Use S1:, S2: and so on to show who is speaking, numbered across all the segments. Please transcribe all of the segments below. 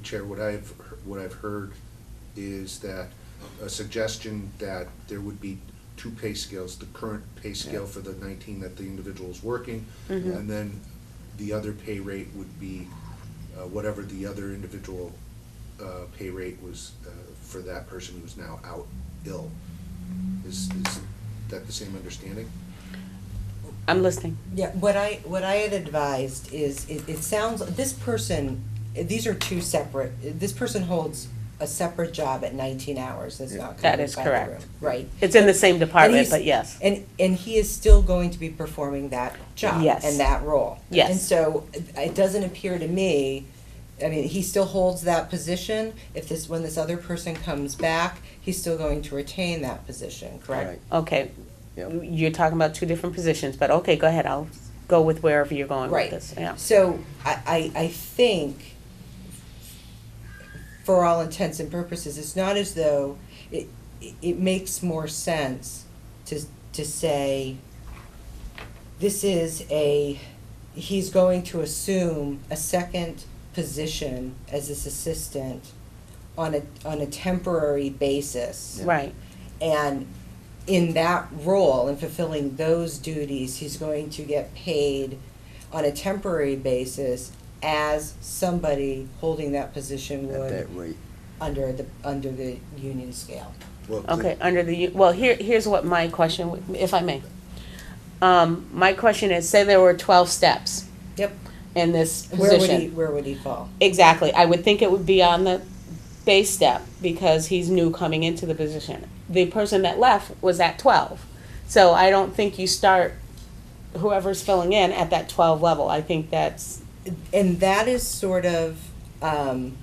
S1: Chair, what I've, what I've heard is that a suggestion that there would be two pay scales, the current pay scale
S2: Yeah. Mm-hmm.
S1: for the nineteen that the individual is working, and then the other pay rate would be uh, whatever the other individual uh, pay rate was uh, for that person who's now out ill. Is, is that the same understanding?
S2: I'm listening.
S3: Yeah, what I, what I had advised is, it, it sounds, this person, these are two separate, this person holds a separate job at nineteen hours, that's not
S2: That
S3: covered
S2: is
S3: by the
S2: correct.
S3: room, Right.
S2: It's in the same
S3: And
S2: department,
S3: he's-
S2: but yes.
S3: And, and he is still going to be performing that job
S2: Yes.
S3: and that role.
S2: Yes.
S3: And so it- it doesn't appear to me, I mean, he still holds that position. If this, when this other person comes back, he's still going to retain that position, correct?
S2: Okay,
S4: Yep.
S2: you're talking about two different positions, but okay, go ahead, I'll go with wherever you're going with
S3: Right.
S2: this, yeah.
S3: So I, I, I think, for all intents and purposes, it's not as though, it, it- it makes more sense to, to say, this is a, he's going to assume a second position as this assistant on a, on a temporary basis.
S4: Yeah.
S2: Right,
S3: And in that role, in fulfilling those duties, he's going to get paid on a temporary basis as somebody holding that position
S4: at
S3: would
S4: that rate.
S3: under the, under the union scale.
S1: Well, the-
S2: okay, under the, u- well, here, here's what my question, w- if I may. Um, my question is, say there were twelve steps
S3: Yep.
S2: in this
S3: Where would he,
S2: position.
S3: where would he fall?
S2: Exactly, I would think it would be on the base step, because he's new coming into the position. The person that left was at twelve, so I don't think you start whoever's filling in at that twelve level, I think that's
S3: And that is sort of, um,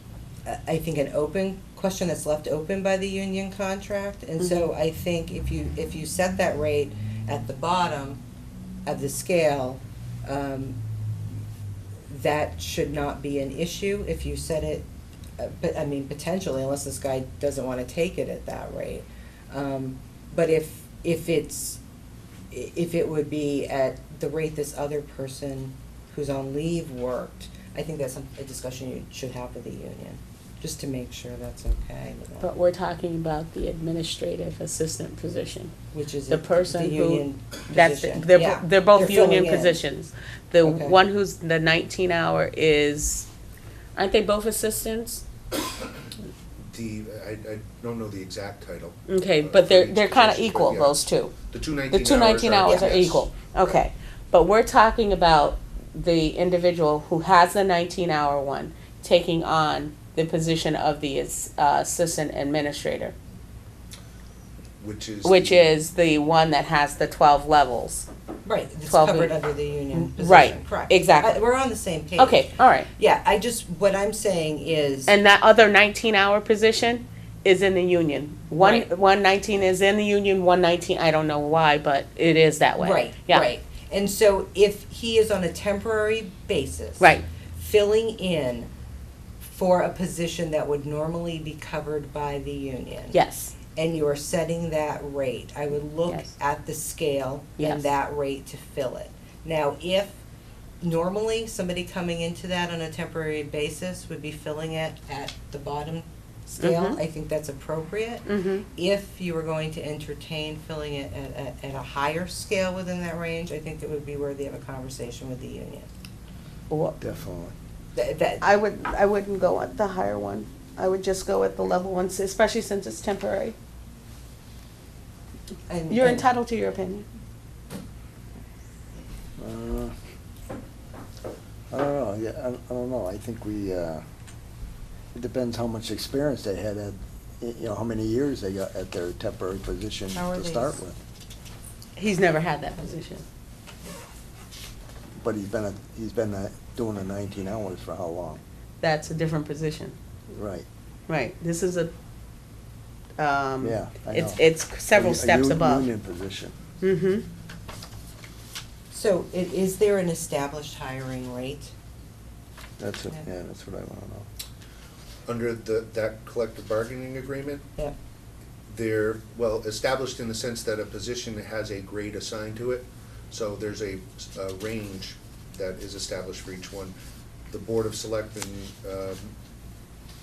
S3: I I think an open question that's left open by the union contract. And so I think if you, if you set that rate at the bottom of the scale, um, that should not be an issue if you set it, uh, but, I mean, potentially, unless this guy doesn't wanna take it at that rate. Um, but if, if it's, i- if it would be at the rate this other person who's on leave worked, I think that's some- a discussion you should have with the union, just to make sure that's okay with
S2: But
S3: them,
S2: we're talking about the administrative assistant position.
S3: which is
S2: the
S3: a-
S2: person
S3: the
S2: who-
S3: union
S2: That's,
S3: position.
S2: they're,
S3: Yeah.
S2: they're both
S3: filling
S2: union
S3: in.
S2: positions. The
S3: Okay.
S2: one who's the nineteen hour is, aren't they both assistants?
S1: The, I, I don't know the exact title.
S2: Okay,
S1: uh,
S2: but
S1: for
S2: they're,
S1: each
S2: they're kinda
S1: position, but
S2: equal,
S1: yeah.
S2: those two.
S1: The two nineteen
S2: Mm. The two nineteen hours are
S1: yes.
S2: equal, okay. But we're talking about the individual who has the nineteen hour one taking on the position of the ass- uh, assistant administrator,
S1: Which is.
S2: which
S1: the-
S2: is the one that has the twelve levels.
S3: Right, it's
S2: 12
S3: covered
S2: week-
S3: under the union position.
S2: right,
S3: Correct.
S2: exactly.
S3: I- We're on the same page.
S2: Okay, all right.
S3: Yeah, I just, what I'm saying is,
S2: And that other nineteen hour position is in the union. One,
S3: Right.
S2: one nineteen is in the union, one nineteen, I don't know why, but it is that way.
S3: right,
S2: Yeah.
S3: right. And so if he is on a temporary basis.
S2: Right,
S3: filling in for a position that would normally be covered by the union.
S2: yes,
S3: And you are setting that rate. I would look
S2: Yes.
S3: at the scale
S2: Yes.
S3: and that rate to fill it. Now, if normally somebody coming into that on a temporary basis would be filling it at the bottom scale,
S2: Mhm.
S3: I think that's appropriate.
S2: mm-hmm,
S3: If you were going to entertain filling it at, at, at a higher scale within that range, I think it would be worthy of a conversation with the union.
S4: Definitely.
S3: That, that,
S2: I would, I wouldn't go at the higher one, I would just go at the level one, especially since it's temporary.
S3: and-
S2: You're
S3: and-
S2: entitled to your opinion.
S4: Uh, I don't know, yeah, I don't- I don't know, I think we, uh, it depends how much experience they had at, y- you know, how many years they got at their temporary position
S3: How are
S4: to start
S3: these?
S4: with.
S2: He's never had that position.
S4: But he's been, a- he's been uh, doing the nineteen hours for how long?
S2: That's a different position.
S4: Right.
S2: Right, this is a, um,
S4: Yeah, I
S2: it's,
S4: know.
S2: it's several
S4: A- a
S2: steps
S4: u-
S2: above.
S4: Union position.
S2: Mm-hmm.
S3: So i- is there an established hiring rate?
S4: That's, what-
S3: Yeah.
S4: yeah, that's what I wanna know.
S1: Under the, that collective bargaining agreement,
S3: Yep.
S1: they're, well, established in the sense that a position has a grade assigned to it. So there's a, a range that is established for each one. The Board of Selectmen, um,